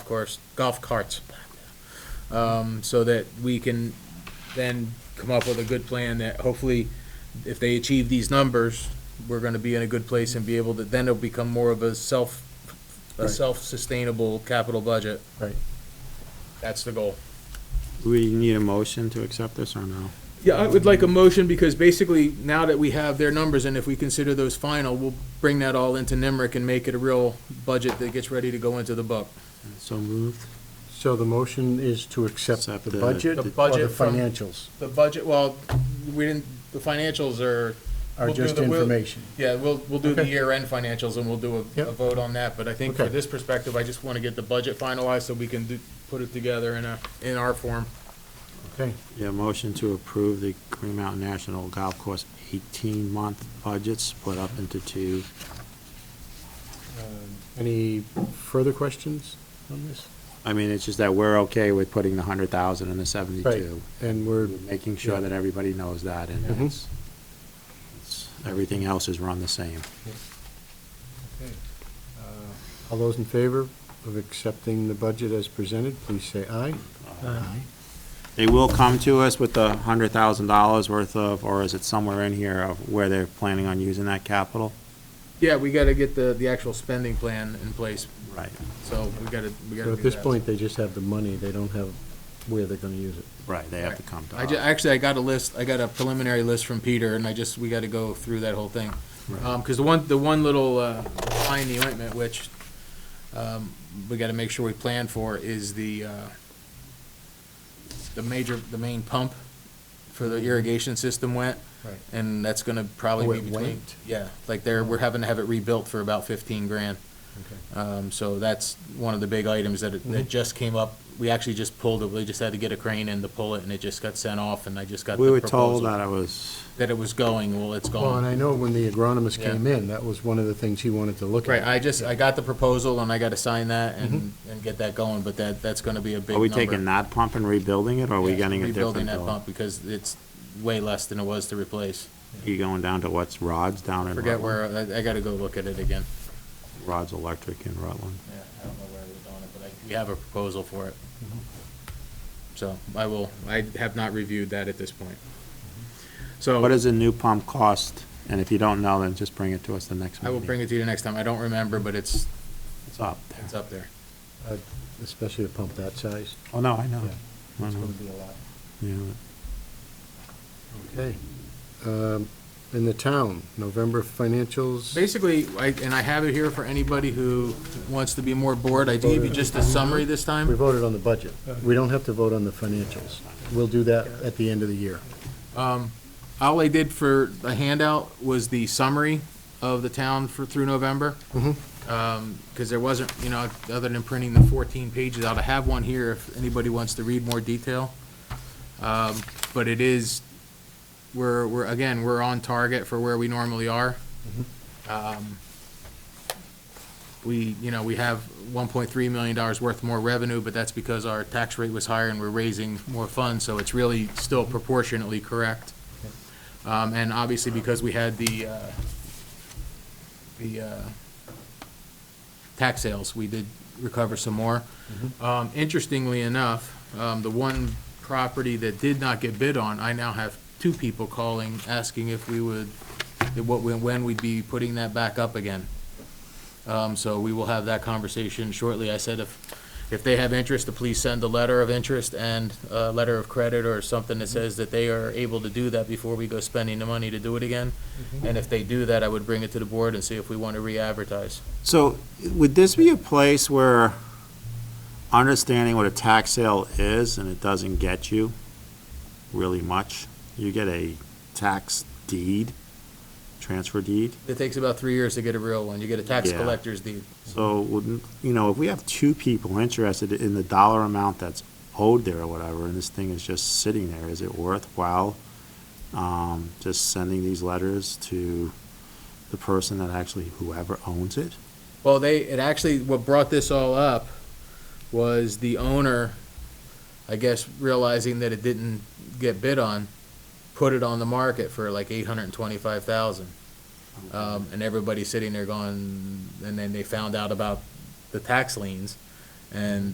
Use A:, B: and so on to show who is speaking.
A: course, golf carts. Um, so that we can then come up with a good plan that hopefully, if they achieve these numbers, we're gonna be in a good place and be able to, then it'll become more of a self, a
B: Right.
A: self-sustainable capital budget.
B: Right.
A: That's the goal.
B: We need a motion to accept this or no?
A: Yeah, I would like a motion, because basically, now that we have their numbers, and if we consider those final, we'll bring that all into NIMRIC and make it a real budget that gets ready to go into the book.
B: So moved?
C: So the motion is to accept
B: Accept
C: the
B: the-
C: budget
A: The
C: or the
A: budget from-
C: financials,
A: The budget, well, we didn't, the financials are,
C: are
A: We'll do
C: just
A: the- we'll-
C: information.
A: yeah, we'll, we'll do the
C: Okay.
A: year-end financials, and we'll do a, a
C: Yep.
A: vote on that, but I think for
C: Okay.
A: this perspective, I just wanna get the budget finalized, so we can do, put it together in a, in our form.
C: Okay,
B: Yeah, motion to approve the Green Mountain National Golf Course eighteen-month budget split up into two.
A: Um,
C: any further questions on this?
B: I mean, it's just that we're okay with putting the hundred thousand and the
C: Right,
B: seventy-two.
C: and we're,
B: Making sure that everybody knows that and
A: Mm-hmm.
C: Mhm.
B: it's, it's- everything else is run the same.
A: uh,
C: all those in favor of accepting the budget as presented, please say aye. Aye.
B: They will come to us with the hundred thousand dollars worth of, or is it somewhere in here of where they're planning on using that capital?
A: Yeah, we gotta get the, the actual spending plan in place,
B: Right,
A: so we gotta, we gotta
C: So
A: do
C: at this
A: that.
C: point, they just have the money, they don't have where they're gonna use it.
B: right, they have to come to
A: I ju-
B: us.
A: actually, I got a list, I got a preliminary list from Peter, and I just, we gotta go through that whole thing.
B: Right.
A: Um 'cause cause the one, the one little, uh, fly in the ointment, which, um, we gotta make sure we plan for is the, uh, the major, the main pump for the irrigation system went.
C: Right.
A: And that's gonna
C: Oh,
A: probably
C: it
A: be between,
C: went?
A: yeah, like there, we're having to have it rebuilt for about fifteen grand.
C: Okay.
A: Um, so that's one of the big items that,
B: Mm-hmm.
A: that just came up. We actually just pulled it, we just had to get a crane in to pull it, and it just got sent off, and I just got the
B: We were
A: proposal.
B: told that it was,
A: That it was going, well, it's
C: Well,
A: gone.
C: and I know when the agronomist
A: Yeah.
C: came in, that was one of the things he wanted to look
A: Right,
C: at.
A: I just, I got the proposal, and I gotta sign that and, and get that going, but that, that's gonna be a big
B: Mm-hmm. are
A: number.
B: we taking that pump and rebuilding it, or are we
A: Yeah,
B: getting a different
A: Rebuilding that
B: bill?
A: pump, because it's way less than it was to replace.
B: You going down to what's Rod's down in
A: Forget
B: Rutland?
A: where, I, I gotta go look at it again.
B: Rod's Electric in Rutland.
A: Yeah, I don't know where we're doing it, but I, we have a proposal for it. So I will, I have not reviewed that at this point. So.
B: What does a new pump cost? And if you don't know, then just bring it to us the next
A: I
B: meeting.
A: will bring it to you next time. I don't remember, but it's,
B: It's up there.
A: it's up there.
C: Especially a pump that size.
B: Oh, no, I know.
C: Yeah.
B: I
C: It's
B: know.
C: gonna be a lot.
B: Yeah.
C: Okay. Um, In the town, November financials,
A: Basically, I, and I have it here for anybody who wants to be more bored. I gave you just a summary this
C: we
A: time.
C: voted on the budget. We don't have to vote on the financials. We'll do that at the end of the year.
A: Um, all I did for the handout was the summary of the town for, through November.
C: Mhm.
A: Um, cause there wasn't, you know, other than printing the fourteen pages out, I have one here if anybody wants to read more detail. Um, but it is, we're, we're, again, we're on target for where we normally are. Um, We, you know, we have one point three million dollars worth more revenue, but that's because our tax rate was higher and we're raising more funds, so it's really still proportionately correct. Um, and obviously because we had the, uh, the, uh, tax sales, we did recover some more. Um, interestingly enough, um, the one property that did not get bid on, I now have two people calling, asking if we would, that what, when when we'd be putting that back up again. Um, so we will have that conversation shortly. I said if, if they have interest, to please send a letter of interest and a letter of credit or something that says that they are able to do that before we go spending the money to do it again. And if they do that, I would bring it to the board and see if we want to re-advertise.
B: So would this be a place where understanding what a tax sale is and it doesn't get you really much? You get a tax deed, transfer deed.
A: It takes about three years to get a real one. You get a tax
B: Yeah.
A: collector's deed.
B: So, wouldn't- you know, if we have two people interested in the dollar amount that's owed there or whatever, and this thing is just sitting there, is it worthwhile um, just sending these letters to the person that actually, whoever owns it?
A: Well, they, it actually, what brought this all up was the owner, I guess, realizing that it didn't get bid on, put it on the market for like eight hundred and twenty-five thousand. Um, and everybody's sitting there going, and then they found out about the tax liens, and